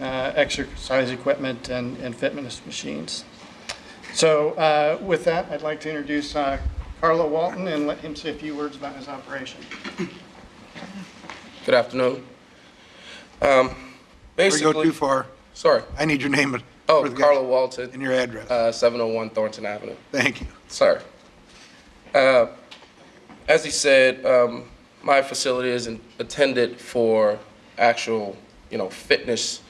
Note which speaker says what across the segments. Speaker 1: uh, exercise equipment and and fitness machines. So uh, with that, I'd like to introduce uh, Carlo Walton and let him say a few words about his operation.
Speaker 2: Good afternoon. Um,
Speaker 3: Before you go too
Speaker 2: Basically,
Speaker 3: far,
Speaker 2: sorry.
Speaker 3: I need your name and-
Speaker 2: Oh,
Speaker 3: for the guy-
Speaker 2: Carlo
Speaker 3: and
Speaker 2: Walton,
Speaker 3: your address.
Speaker 2: uh, 701 Thornton Avenue.
Speaker 3: Thank you.
Speaker 2: Sorry. Uh, As he said, um, my facility is in- intended for actual, you know, fitness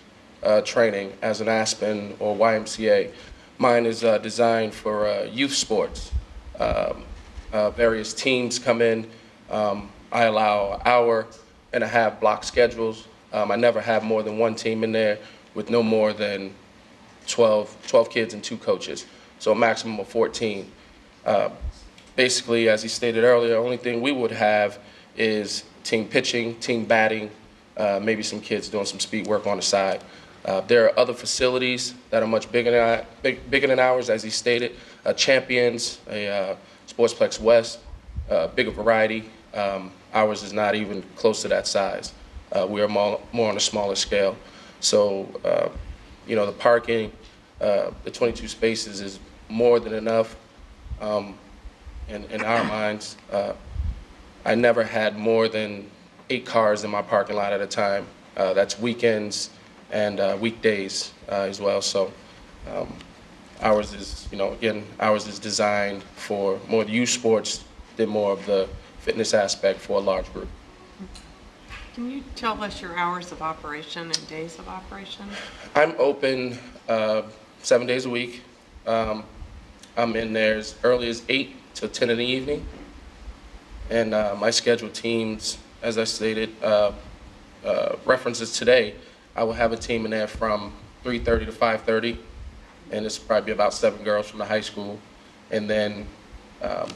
Speaker 2: uh, training as an Aspen or YMCA. Mine is uh, designed for uh, youth sports. Um, uh, Various teams come in. Um, I allow an hour and a half block schedules. Um, I never have more than one team in there with no more than 12, 12 kids and two coaches, so a maximum of 14. Uh, Basically, as he stated earlier, the only thing we would have is team pitching, team batting, uh, maybe some kids doing some speed work on the side. Uh, There are other facilities that are much bigger than, I- big- bigger than ours, as he stated, uh, Champions, a uh, Sportsplex West, uh, bigger variety. Um, Ours is not even close to that size. Uh, We are more more on a smaller scale. So uh, you know, the parking, uh, the 22 spaces is more than enough um, in in our minds. Uh, I never had more than eight cars in my parking lot at a time. Uh, That's weekends and uh, weekdays uh, as well. So um, ours is, you know, again, ours is designed for more youth sports than more of the fitness aspect for a large group.
Speaker 4: Can you tell us your hours of operation and days of operation?
Speaker 2: I'm open uh, seven days a week. Um, I'm in there as early as eight till ten in the evening, and uh, my scheduled teams, as I stated, uh, uh, references today. I will have a team in there from three thirty to five thirty, and it's probably about seven girls from the high school, and then um,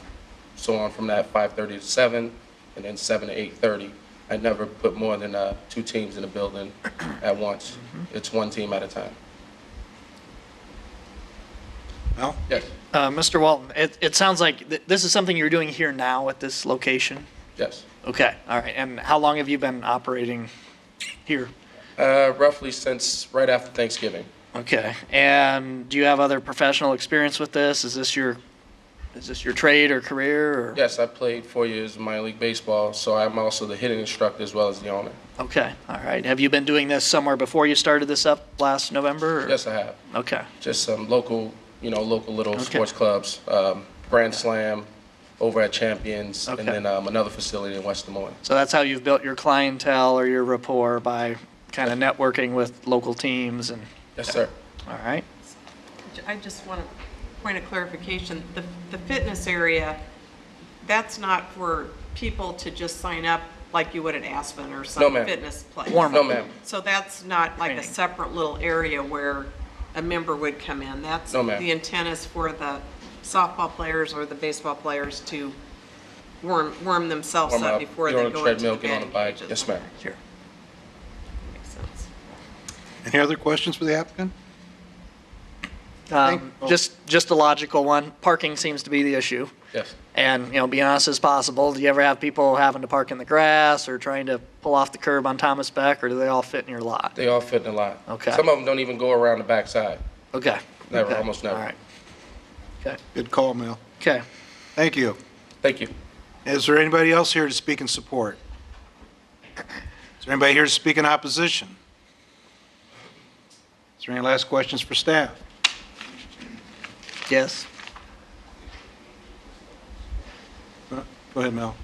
Speaker 2: so on from that five thirty to seven, and then seven to eight thirty. I never put more than uh, two teams in the building at once. It's one team at a time.
Speaker 3: Mel?
Speaker 2: Yes,
Speaker 5: Uh, Mr. Walton, it, it sounds like th- this is something you're doing here now at this location.
Speaker 2: yes.
Speaker 5: Okay, all right. And how long have you been operating here?
Speaker 2: Uh, roughly since right after Thanksgiving.
Speaker 5: Okay. And do you have other professional experience with this? Is this your is this your trade or career? Or?
Speaker 2: Yes, I played four years of minor league baseball, so I'm also the hitting instructor as well as the owner.
Speaker 5: Okay. All right. Have you been doing this somewhere before you started this up last November? Or?
Speaker 2: Yes, I have.
Speaker 5: Okay.
Speaker 2: Just some local, you know, local little
Speaker 5: Okay.
Speaker 2: sports clubs, um, Grand Slam over at Champions, and
Speaker 5: Okay.
Speaker 2: then um, another facility in West Des Moines.
Speaker 5: So that's how you've built your clientele or your rapport by kind of networking with local teams and
Speaker 2: Yes, sir.
Speaker 5: all right.
Speaker 4: I just want a point of clarification. The, the fitness area, that's not for people to just sign up like you would at Aspen or
Speaker 2: No,
Speaker 4: some
Speaker 2: ma'am.
Speaker 4: fitness place.
Speaker 5: Warm
Speaker 2: No, ma'am.
Speaker 4: So that's not like a
Speaker 5: Training.
Speaker 4: separate little area where a member would come in. That's,
Speaker 2: No, ma'am.
Speaker 4: the intent is for the softball players or the baseball players to warm, warm themselves
Speaker 2: Warm
Speaker 4: up
Speaker 2: up,
Speaker 4: before
Speaker 2: get
Speaker 4: they
Speaker 2: on a
Speaker 4: go into the
Speaker 2: treadmill, get on a
Speaker 4: batting
Speaker 2: bike.
Speaker 4: cages.
Speaker 2: Yes, ma'am.
Speaker 5: Here.
Speaker 4: Makes sense.
Speaker 3: Any other questions for the applicant?
Speaker 5: Um,
Speaker 3: Thank-
Speaker 5: Just, just a logical one. Parking seems to be the issue.
Speaker 2: Yes.
Speaker 5: And, you know, be honest as possible, do you ever have people having to park in the grass or trying to pull off the curb on Thomas Beck, or do they all fit in your lot?
Speaker 2: They all fit in a lot.
Speaker 5: Okay.
Speaker 2: Some of them don't even go around the backside.
Speaker 5: Okay.
Speaker 2: Never,
Speaker 5: Okay.
Speaker 2: almost never.
Speaker 5: All right. Okay,
Speaker 3: Good call, Mel.
Speaker 5: okay.
Speaker 3: Thank you.
Speaker 2: Thank you.
Speaker 3: Is there anybody else here to speak in support? Is there anybody here to speak in opposition? Is there any last questions for staff?
Speaker 5: Yes?
Speaker 3: Go ahead, Mel.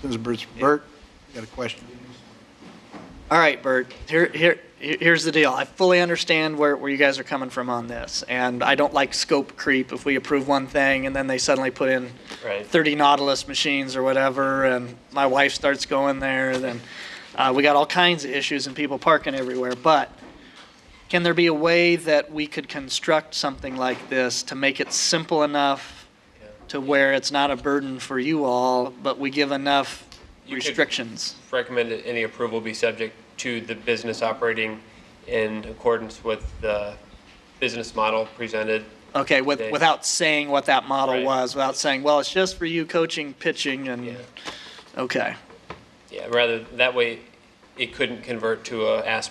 Speaker 3: Since Bert's, Bert, you got a question?
Speaker 5: All right, Bert, here, here, here- here's the deal. I fully understand where, where you guys are coming from on this, and I don't like scope creep if we approve one thing and then they suddenly put in
Speaker 2: Right.
Speaker 5: 30 Nautilus machines or whatever, and my wife starts going there, then uh, we got all kinds of issues and people parking everywhere. But can there be a way that we could construct something like this to make it simple enough to where it's not a burden for you all, but we give enough
Speaker 6: You could-
Speaker 5: restrictions?
Speaker 6: recommend that any approval be subject to the business operating in accordance with the business model presented.
Speaker 5: Okay, with,
Speaker 6: They-
Speaker 5: without saying what that model
Speaker 6: Right.
Speaker 5: was, without saying, well, it's just for you coaching, pitching,
Speaker 6: Yeah,
Speaker 5: and, okay.
Speaker 6: yeah, rather, that way it couldn't convert to a Aspen